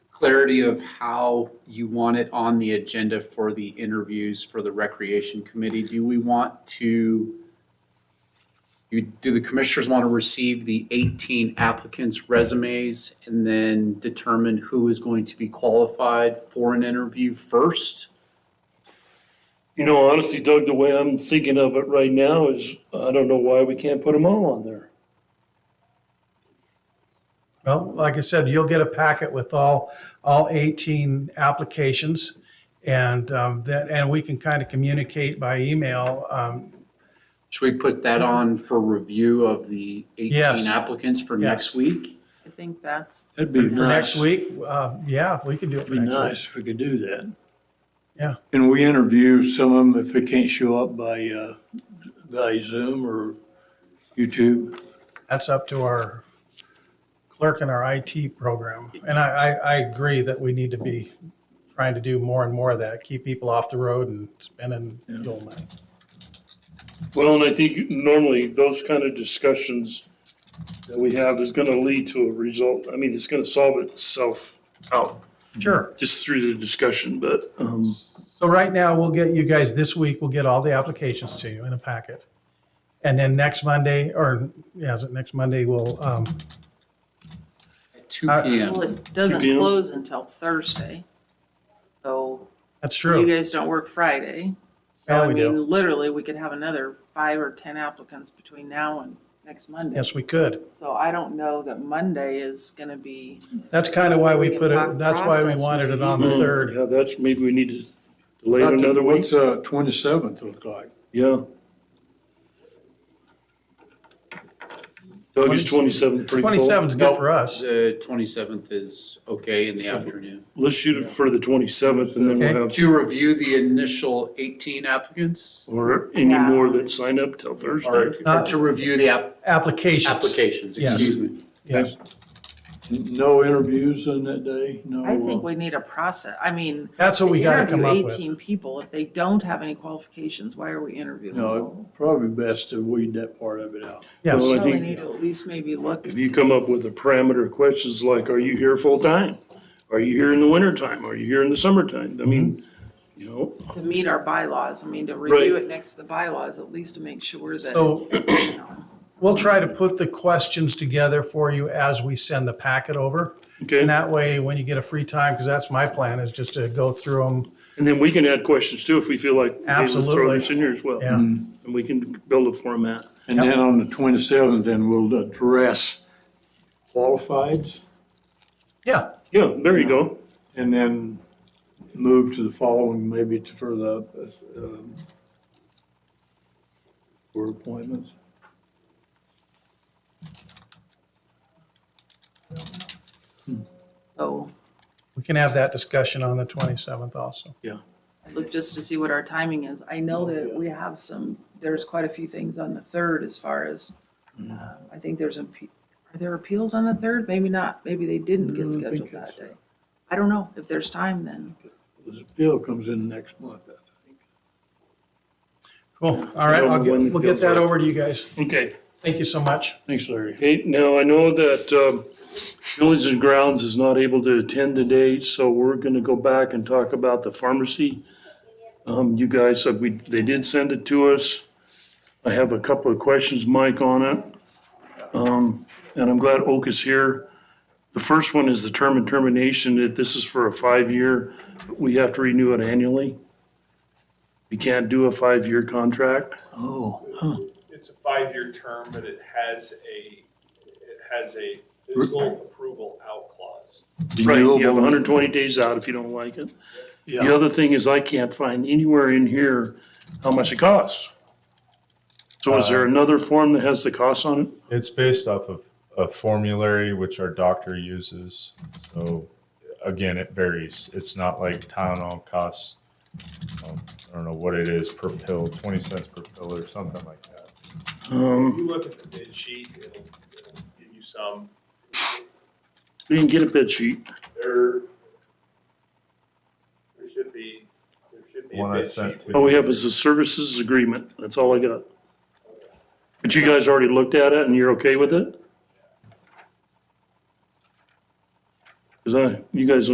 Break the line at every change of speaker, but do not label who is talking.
clarity of how you want it on the agenda for the interviews for the Recreation Committee, do we want to, you, do the commissioners want to receive the 18 applicants' resumes and then determine who is going to be qualified for an interview first?
You know, honestly, Doug, the way I'm thinking of it right now is, I don't know why we can't put them all on there.
Well, like I said, you'll get a packet with all, all 18 applications. And um, that, and we can kind of communicate by email. um,
Should we put that on for review of the 18
Mm-hmm. Yes.
applicants for
Yes.
next week?
I think that's,
That'd be
For next
nice.
week, Uh, yeah, we can do it
It'd
for
be
next week.
nice if we could do that.
Yeah.
And we interview some of them if they can't show up by, uh, by Zoom or YouTube.
That's up to our clerk and our IT program. And I, I, I agree that we need to be trying to do more and more of that, keep people off the road and spending fuel money.
Well, and I think normally those kind of discussions that we have is gonna lead to a result. I mean, it's gonna solve itself out
Sure.
just through the discussion, but, um,
So right now, we'll get you guys, this week, we'll get all the applications to you in a packet. And then next Monday, or, yeah, is it next Monday, we'll, um,
At 2
Uh,
PM.
well, it doesn't
Good deal.
close until Thursday. So
that's
you
true.
guys don't work Friday. So
Yeah,
I
we do.
mean, literally, we could have another five or 10 applicants between now and next Monday.
Yes, we could.
So I don't know that Monday is going to be,
That's kind of why we put it, that's why we wanted it on
Mm-hmm.
the third.
Hmm, yeah, that's, maybe we need to delay it another week.
What's, uh, twenty-seventh look like?
Yeah. Doug, is twenty-seventh pretty full?
Twenty-seven's good for us.
The 27th is okay in the afternoon.
Let's shoot it for the twenty-seventh and then we'll have,
To review the initial 18 applicants
or any
Yeah.
more that sign up till
or
Thursday.
or to review the app-
Applications.
applications,
Yes.
excuse me.
Yes.
No interviews on that day? No.
I think
uh,
we need a process. I mean,
Oh. That's what we
to
gotta come
interview
up with.
18 people, if they don't have any qualifications, why are we interviewing? them?
No, probably best to weed that part of it out.
Yes.
Well, I
So we
think-
need to at least maybe look.
If you come up with a parameter of questions like, are you here full-time? Are you here in the wintertime? Are you here in the summertime? I mean,
Mm-hmm.
you know,
to meet our bylaws, I mean, to review
Right.
it next to the bylaws, at least to make sure that,
So
you know,
we'll try to put the questions together for you as we send the packet over.
okay,
And that way, when you get a free time, because that's my plan, is just to go through them.
and then we can add questions too if we feel like, hey, let's throw
Absolutely.
this in here as well.
Yeah.
And we can build a format.
And then on the twenty-seventh, then we'll address qualifieds
Yeah,
Yeah, there you go.
and then move to the following, maybe to further up, um, for appointments.
so,
we can have that discussion on the 27th also.
look just to see what our timing is. I know that we have some, there's quite a few things on the third as far as, uh, I think there's, a pe- are there appeals on the third? Maybe not, maybe they didn't
Mm,
get
I think
scheduled
it's,
that day. I don't know, if there's time then.
This bill comes in next month, I think.
Cool. All right, I'll get- we'll get that over to you guys.
Okay.
Thank you so much.
Thanks, Larry.
Okay, now I know that um, Village and Grounds is not able to attend today, so we're going to go back and talk about the pharmacy. Um, You guys, said we they did send it to us. I have a couple of questions, Mike, on it. Um, And I'm glad Oak is here. The first one is the term and termination, that this is for a five-year, we have to renew it annually. We can't do a five-year contract.
Oh,
It's a five-year term, but it has a, it has a fiscal approval out clause.
Right, you have
Renewable.
120 days out if you don't like it. The
yeah.
other thing is I can't find anywhere in here how much it costs. So is
Uh,
there another form that has the cost on it?
It's based off of a formulary which our doctor uses. So again, it varies. It's not like Tylenol costs, um, I don't know what it is per pill, 20 cents per pill or something like that.
If
Um,
you look at the bid sheet, it'll, it'll give you some,
We can get a bid sheet.
there, there should be, there should be a
One I
bid
sent
sheet.
to
All we
you.
have is a services agreement. That's all I got. But you guys already looked at it and you're okay with it? Because I, you guys